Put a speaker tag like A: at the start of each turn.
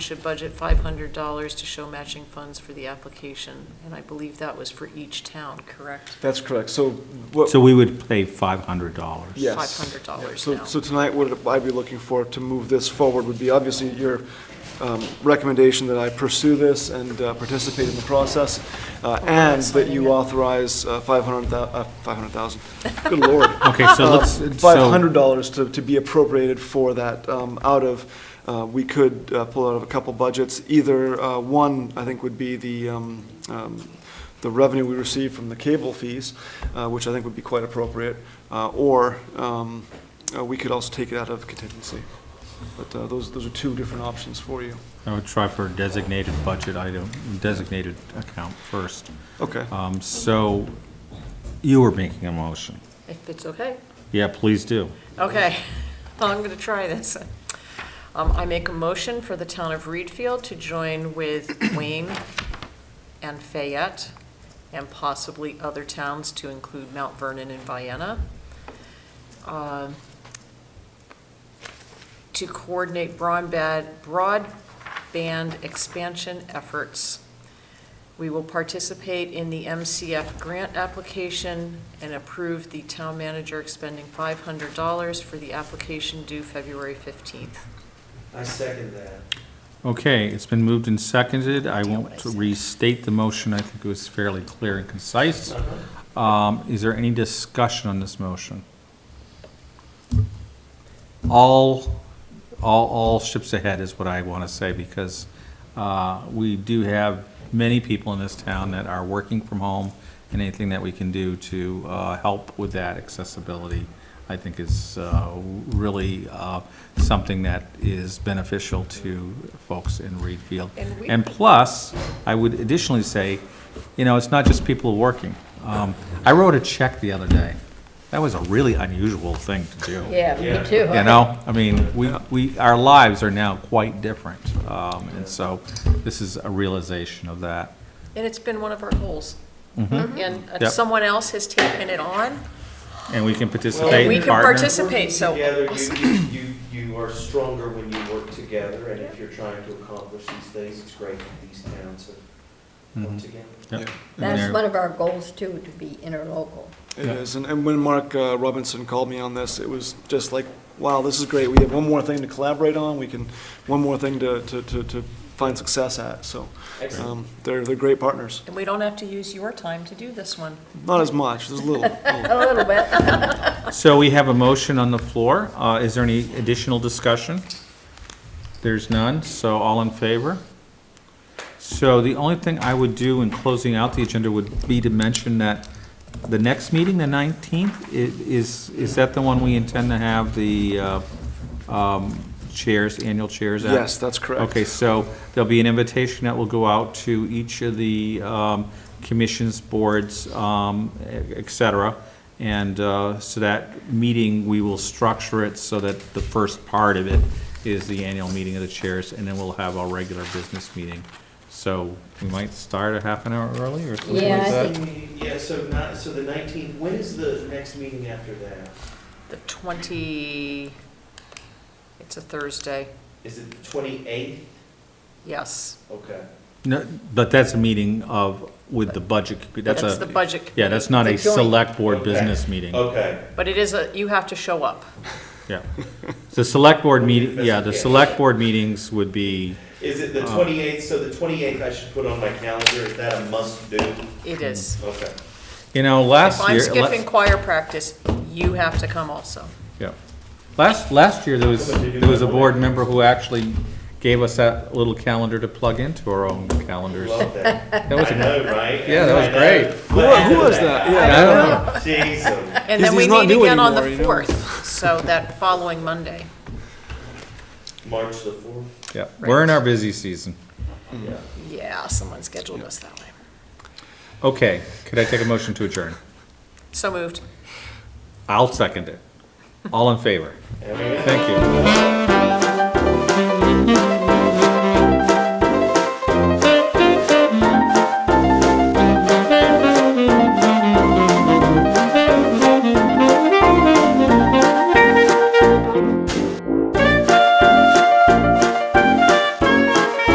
A: should budget $500 to show matching funds for the application, and I believe that was for each town, correct?
B: That's correct. So what,
C: So we would pay $500.
B: yes.
A: $500 now.
B: So, so tonight, what I'd be looking for to move this forward would be obviously your um, recommendation that I pursue this and uh, participate in the process, uh, and that
A: signing it.
B: you authorize uh, 500, uh, 500,000, good lord.
C: Okay, so
B: Uh,
C: let's, so,
B: $500 to, to be appropriated for that um, out of, uh, we could uh, pull out of a couple budgets. Either, uh, one, I think would be the, um, um, the revenue we receive from the cable fees, uh, which I think would be quite appropriate, uh, or um, uh, we could also take it out of contingency. But uh, those, those are two different options for you.
C: I would try for a designated budget item, designated account first.
B: Okay.
C: Um, So you were making a motion.
A: If it's okay.
C: Yeah, please do.
A: Okay, I'm going to try this. Um, I make a motion for the town of Reedfield to join with Wayne and Fayette and possibly other towns to include Mount Vernon and Vienna. um, To coordinate broadband, broadband expansion efforts. We will participate in the MCF grant application and approve the town manager expending $500 for the application due February 15th.
D: I second that.
C: Okay, it's been moved and seconded.
A: Do
C: I
A: you know
C: won't
A: what I said?
C: restate the motion. I think it was fairly clear and concise. Um, Is there any discussion on this motion? All, all, all ships ahead is what I want to say, because uh, we do have many people in this town that are working from home, and anything that we can do to uh, help with that accessibility, I think is uh, really uh, something that is beneficial to folks in Reed Field.
A: And we-
C: And plus, I would additionally say, you know, it's not just people working. Um, I wrote a check the other day. That was a really unusual thing to do.
A: Yeah, me too.
C: You know, I mean, we, we, our lives are now quite different, um, and so this is a realization of that.
A: And it's been one of our goals. And uh,
C: Mm-hmm. Yep.
A: someone else has taken it on,
C: And we can
A: and
C: participate
A: we
C: and
A: can
C: partner.
A: participate, so.
D: Together, you, you, you you are stronger when you work together, and if you're trying to accomplish these things, it's great that these towns have come
C: Mhm.
D: together.
C: Yep. And
E: That's
C: there-
E: one of our goals too, to be interlocal.
B: It
C: Yeah.
B: is, and, and when Mark uh, Robinson called me on this, it was just like, wow, this is great, we have one more thing to collaborate on, we can, one more thing to, to, to, to find success at, so,
D: Excellent.
B: um, they're, they're great partners.
A: And we don't have to use your time to do this one.
B: Not as much, there's a little, little.
E: A little bit.
C: So we have a motion on the floor. Uh, is there any additional discussion? There's none, so all in favor? So the only thing I would do in closing out the agenda would be to mention that the next meeting, the nineteenth, is, is that the one we intend to have the, uh, um, chairs, annual chairs at?
B: yes, that's correct.
C: Okay, so there'll be an invitation that will go out to each of the um, commissions, boards, um, et cetera. And uh, so that meeting, we will structure it so that the first part of it is the annual meeting of the chairs, and then we'll have our regular business meeting. So we might start a half an hour early or something
E: Yeah,
C: like
E: I
C: that.
D: Yeah, so not, so the nineteenth, when is the next meeting after that?
A: The 20, it's a Thursday,
D: Is it the twenty-eighth?
A: yes.
D: Okay.
C: No, But that's a meeting of, with the budget, that's
A: That's the
C: a,
A: budget.
C: yeah, that's not a
E: It's a joint.
C: select board
D: Okay. Oh,
C: business meeting.
D: Okay.
A: But it is a, you have to show up.
C: Yeah. The select board meeting, yeah, the
D: Investigation.
C: select board meetings would be,
D: Is it the twenty-eighth, so the twenty-eighth I should put on my calendar, is that a must-do?
C: Mm-hmm.
A: It is.
D: Okay.
C: you know,
A: If
C: last year.
A: I'm
C: la-
A: skipping choir practice, you have to come also.
C: Yeah. Last, last year, there was, there was a board member who actually gave us that little calendar to plug into our own calendars.
D: Love that.
C: That was
D: I
C: a-
D: know, right?
C: Yeah, that was
D: I know.
C: great.
B: Who, who was that? Yeah.
C: I don't know.
D: Jesus.
A: And
B: He's-
A: then we
B: he's not
A: meet
B: new
A: again on the
B: anymore, you know.
A: 4th, so that following Monday.
D: March the fourth?
C: Yeah, we're in our busy season.
D: Yeah.
A: Yeah, someone scheduled us that way.
C: Okay, could I take a motion to adjourn?
A: So moved.
C: I'll second it. All in favor?
D: And we-
C: Thank you.